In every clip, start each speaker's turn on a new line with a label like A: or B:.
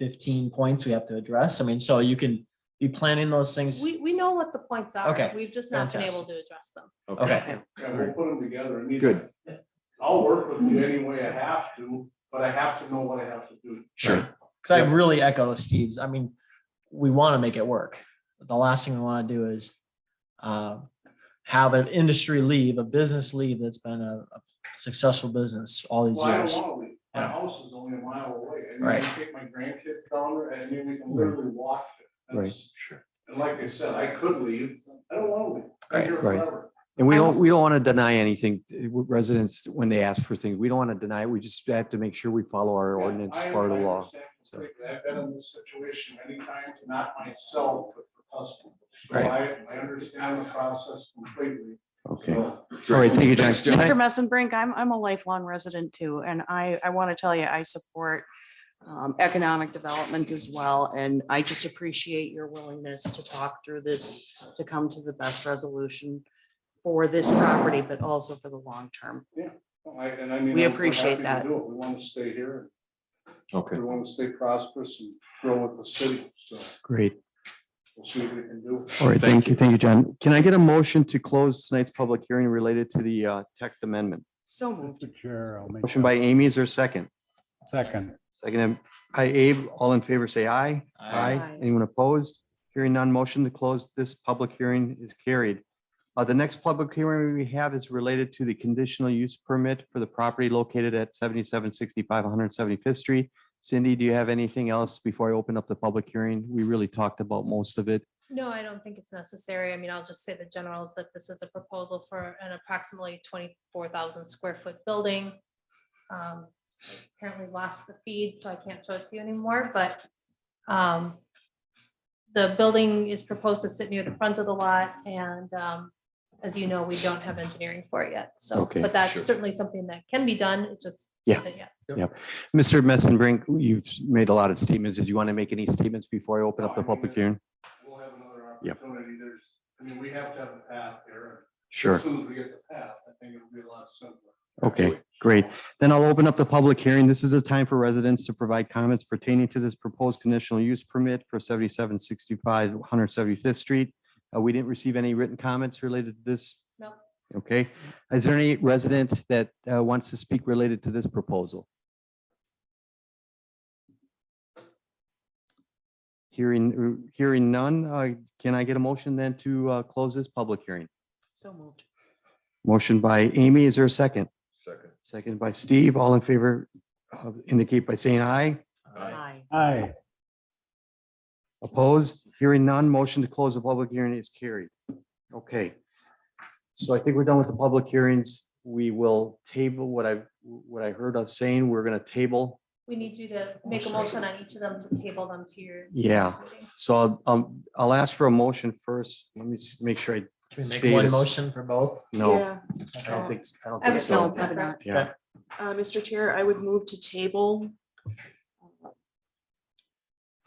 A: fifteen points we have to address. I mean, so you can be planning those things.
B: We, we know what the points are.
A: Okay,
B: We've just not been able
A: fantastic.
B: to address them.
A: Okay,
C: Yeah, we'll put them together. I mean,
D: Good.
C: I'll work with you any way I have to, but I have to know what I have to do.
D: Sure.
A: because I really echo Steve's. I mean, we want to make it work. The last thing we want to do is uh, have an industry leave, a business leave that's been a a successful business all these
C: Well, I
A: years.
C: don't wanna leave. My
A: Yeah.
C: house is only a mile away. and I
A: Right.
C: can Take my grandkids down there and then we can literally walk. it.
D: Right.
C: That's- And like I said, I could leave. I don't wanna leave. I'm here
D: Right.
C: forever.
D: And we
B: I
D: don't, we don't want to deny anything, uh, residents, when they ask for things, we don't want to deny, it. we just have to make sure we follow our
C: Yeah,
D: ordinance,
C: I-
D: follow
C: I
D: the law.
C: understand
D: so.
C: completely. I've been in this situation many times, not myself, but for customers. So
D: Right.
C: I, I understand the process completely.
D: Okay. All
C: So,
D: right, thank you, John.
E: Thanks, John.
D: Can I-
F: Mr. Messenbrink, I'm, I'm a lifelong resident too, and I, I want to tell you, I support um, economic development as well, and I just appreciate your willingness to talk through this, to come to the best resolution for this property, but also for the long term.
C: I- and I mean,
F: We
C: I'm- we're
F: appreciate
C: happy to
F: that.
C: do it. We wanna stay here.
E: Okay.
C: We want to stay prosperous and grow with the city, so
D: Great.
C: we'll see what we can do.
D: All right, thank you, thank you, John. Can I get a motion to close tonight's public hearing related to the uh, text amendment?
F: So moved.
G: Sure, I'll make
D: Motion by Amy, is there a second?
G: second.
D: Second by Abe, all in favor, say aye.
A: Aye.
F: Aye.
D: Anyone opposed? Hearing none, motion to close this public hearing is carried. Uh, the next public hearing we have is related to the conditional use permit for the property located at seventy-seven sixty-five one hundred seventy-fifth Street. Cindy, do you have anything else before I open up the public hearing? We really talked about most of it.
B: No, I don't think it's necessary. I mean, I'll just say the general is that this is a proposal for an approximately twenty-four thousand square foot building. Um, Apparently lost the feed, so I can't show it to you anymore, but um, the building is proposed to sit near the front of the lot and um, as you know, we don't have engineering for it yet, so,
D: Okay,
B: but that's
E: sure.
B: certainly something that can be done, it just.
D: Yeah.
B: isn't yet.
D: Mr. Messenbrink, you've made a lot of statements. Did you want to make any statements before I open up the public hearing?
C: We'll have another
D: Yep.
C: opportunity. There's, I mean, we have to have a path there.
D: Sure.
C: As soon as we get the path, I think it'll be a lot simpler.
D: Okay, great. Then I'll open up the public hearing. This is a time for residents to provide comments pertaining to this proposed conditional use permit for seventy-seven sixty-five one hundred seventy-fifth Street. Uh, we didn't receive any written comments related to this.
B: No.
D: Okay, is there any resident that uh, wants to speak related to this proposal? Hearing, hearing none, uh, can I get a motion then to uh, close this public hearing?
F: So moved.
D: Motion by Amy, is there a second?
E: Second.
D: Second by Steve, all in favor, uh, indicate by saying aye.
F: Aye.
G: Aye,
D: Opposed, hearing none, motion to close the public hearing is carried. Okay. So I think we're done with the public hearings. We will table what I, what I heard us saying, we're gonna table.
B: We need you to make a motion on each of them to table them to your.
D: Yeah.
B: next meeting.
D: So I'll- I'll, I'll ask for a motion first. Let me s- make sure I,
A: Can we
D: Say
A: make one
D: this.
A: motion for both?
D: no, I don't think, I
B: I
D: don't think
B: would
F: No,
B: still-
D: so.
F: probably not.
D: Yeah.
F: Uh, Mr. Chair, I would move to table uh,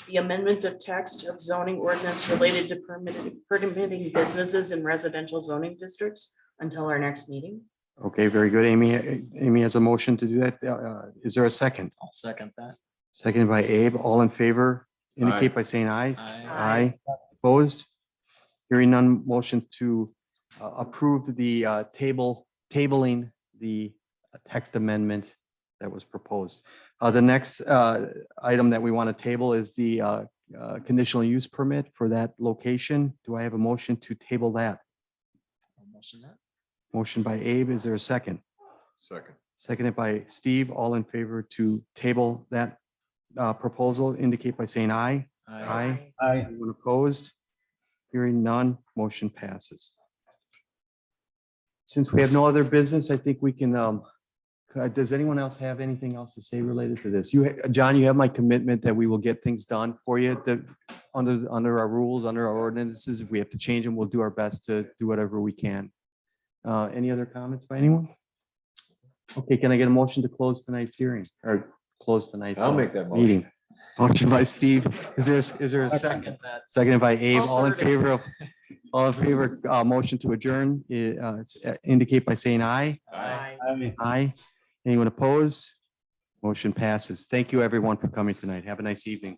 F: the amendment of text of zoning ordinance related to permitting, permitting businesses in residential zoning districts until our next meeting.
D: Okay, very good, Amy. Amy has a motion to do that. Uh, uh, Is there a second?
A: I'll second that.
D: Seconded by Abe, all in favor, indicate by saying aye.
A: I
F: Aye.
D: Aye. Opposed? Hearing none, motion to uh, approve the uh, table, tabling the uh, text amendment that was proposed. Uh, The next uh, item that we want to table is the uh, uh, conditional use permit for that location. Do I have a motion to table that?
A: I'll motion that.
D: Motion by Abe, is there a second?
E: Second.
D: Seconded by Steve, all in favor to table that uh, proposal, indicate by saying aye.
A: Aye.
D: Aye.
G: aye,
D: Anyone opposed? Hearing none, motion passes. Since we have no other business, I think we can, um, uh, does anyone else have anything else to say related to this? You, ha- John, you have my commitment that we will get things done for you, that under, the- under our rules, under our ordinances, if we have to change them, we'll do our best to do whatever we can. Uh, any other comments by anyone? Okay, can I get a motion to close tonight's hearing or close tonight's?
E: I'll
D: uh,
E: make that motion.
D: Meeting. Motion by Steve. Is there, is there a
A: I'll
D: second?
A: Second that.
D: Seconded by Abe,
F: I'll
D: all in
F: third it.
D: favor of, all in favor, uh, motion to adjourn, i- uh, it's- uh, indicate by saying aye.
F: Aye.
G: aye.
D: Aye. Anyone opposed? Motion passes. Thank you, everyone, for coming tonight. Have a nice evening.